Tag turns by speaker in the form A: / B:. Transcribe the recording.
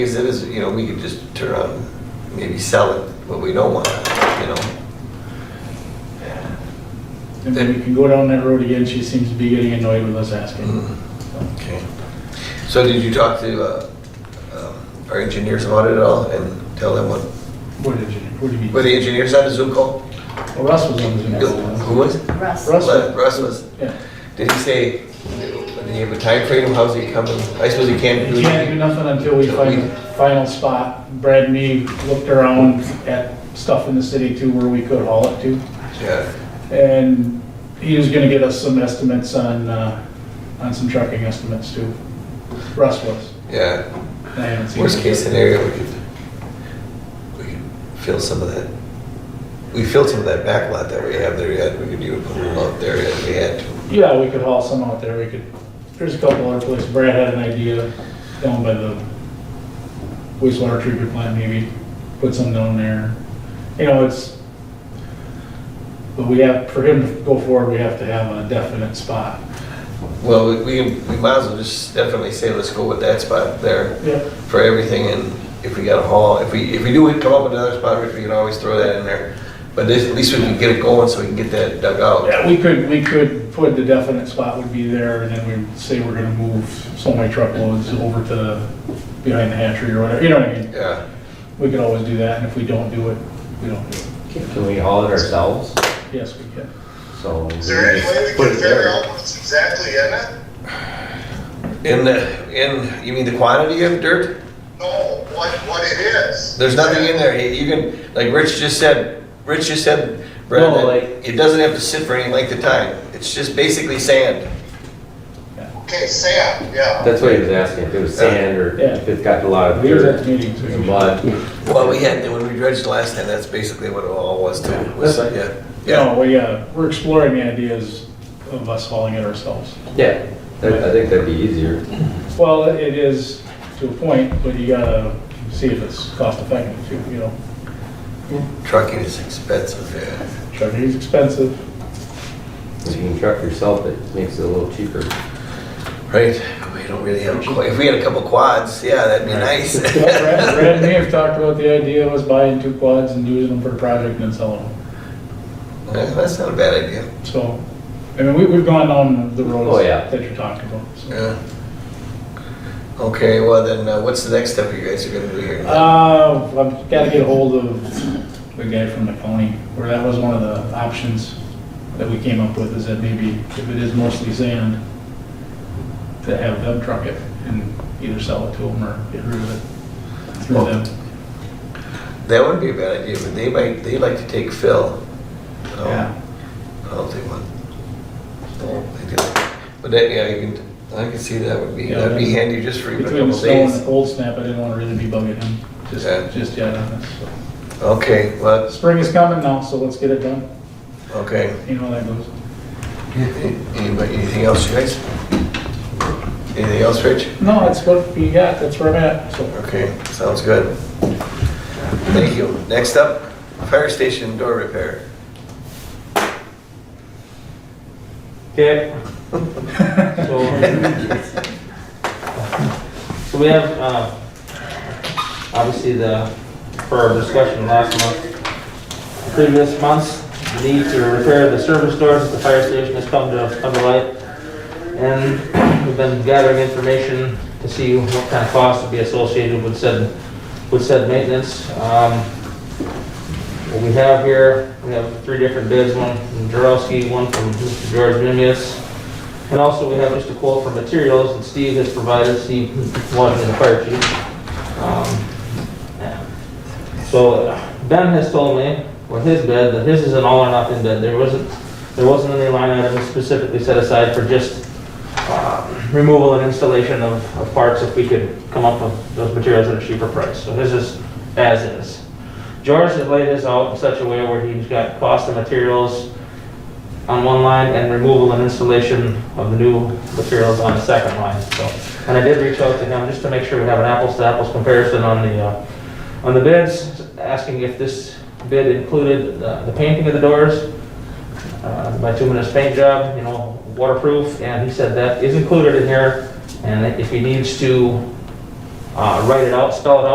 A: Because it is, you know, we could just turn on, maybe sell it, but we don't want to, you know?
B: And then we can go down that road again, she seems to be getting annoyed with us asking.
A: Okay. So did you talk to uh, um, our engineers about it at all and tell them what,
B: What did you, what do you mean?
A: were the engineers on the Zoom call?
B: Well, Russ was on the Zoom
A: Who
B: call.
A: was?
C: Russ.
B: Russ.
A: Le- Russ was.
B: Yeah.
A: Did he say, did he have a timeframe? How's he coming? I suppose he can't do
B: We can't do
A: it.
B: nothing until we find the final spot. Brad and me looked around at stuff in the city too where we could haul it to.
A: Yeah.
B: And he was gonna get us some estimates on, uh, on some trucking estimates too. Russ was.
A: Yeah.
B: I haven't seen
A: Worst
B: him.
A: case scenario, we could, we could fill some of that. We filled some of that back lot that we have there yet. We could even put it out there if we had to.
B: Yeah, we could haul some out there, we could, there's a couple other places, Brad had an idea down by the wastewater treatment plant, maybe put some down there. You know, it's, but we have, for him to go forward, we have to have a definite spot.
A: Well, we- we, we might as well just definitely say, let's go with that spot there
B: Yeah.
A: for everything, and if we got a haul, if we, if we do come up with another spot, Rich, we can always throw that in there. But this- at least we can get it going so we can get that dug out.
B: Yeah, we could, we could put the definite spot would be there, and then we say we're gonna move so many truckloads over to behind the hatchery or whatever, you know what I mean?
A: Yeah,
B: We could always do that, and if we don't do it, we don't do it.
D: Can we haul it ourselves?
B: Yes, we can.
D: So. we
E: Is there any way we
D: just put
E: can
D: it
E: figure
D: there.
E: out what's exactly in it?
A: in the, in, you mean the quantity of dirt?
E: No, what, what it is.
A: There's nothing in there, you can, like Rich just said, Rich just said, Brad,
D: No,
A: that
D: like-
A: it doesn't have to sit for any length of time, it's just basically sand.
E: Okay, Sam, yeah.
D: That's what he was asking, if it was sand or
B: Yeah.
D: if it's got a lot of
B: We was at
D: dirt
B: the meeting, so.
D: and mud.
A: Well, we had, when we dredged last time, that's basically what it all was too. was-
D: That's
A: yeah, yeah.
B: No, we, uh, we're exploring the ideas of us hauling it ourselves.
D: Yeah, that- I think that'd be easier.
B: Well, it is to a point, but you gotta see if it's cost effective too, you know.
A: Trucking is expensive, yeah.
B: Trucking is expensive.
D: If you can truck yourself, it makes it a little cheaper.
A: Right, we don't really have, qu- if we had a couple quads, yeah, that'd be nice.
B: Brad Brad and me have talked about the idea of us buying two quads and using them for a project and then selling them.
A: Yeah, That's not a bad idea.
B: So, I mean, we, we've gone down the roads
D: Oh, yeah.
B: that you're talking about. so.
A: Yeah. Okay, well then, uh, what's the next step you guys are gonna do here?
B: Uh, I've gotta get hold of the guy from the county, where that was one of the options that we came up with, is that maybe if it is mostly sand, to have them truck it and either sell it to them or get rid of it through them.
A: That wouldn't be a bad idea, but they might, they like to take fill. Oh,
B: Yeah.
A: I'll take one. They do. But that, yeah, you can, I can see that would be,
B: Yeah,
A: that'd be
B: that's-
A: handy just for even a
B: Between the
A: couple
B: snow and the
A: days.
B: cold snap, I didn't wanna really be bugging him, just,
A: Yeah.
B: just yet on this. so.
A: Okay, well,
B: Spring is coming now, so let's get it done,
A: okay.
B: you know how that goes.
A: Anybody, anything else, you guys? Anything else, Rich?
B: No, that's what we got, that's where I'm at, so.
A: Okay, sounds good. Thank you. Next up, fire station door repair.
F: Okay. So so we have, uh, obviously the, for our discussion last month, previous months, the need to repair the service doors at the fire station has come to, come to light. And we've been gathering information to see what kind of costs would be associated with said, with said maintenance. Um, what we have here, we have three different bids, one from Jarowski, one from Mr. George Mimius, and also we have just a quote for materials that Steve has provided, Steve Washington, the fire chief. Um, So Ben has told me, with his bid, that his is an all or nothing bid, there wasn't, there wasn't any line item specifically set aside for just uh, removal and installation of of parts if we could come up with those materials at a cheaper price, so his is as is. George has laid this out in such a way where he's got cost of materials on one line and removal and installation of the new materials on the second line, so. And I did reach out to him just to make sure we have an apples to apples comparison on the, uh, on the bids, asking if this bid included uh, the painting of the doors, uh, bituminous paint job, you know, waterproof, and he said that is included in here, and if he needs to uh, write it out, spell it out.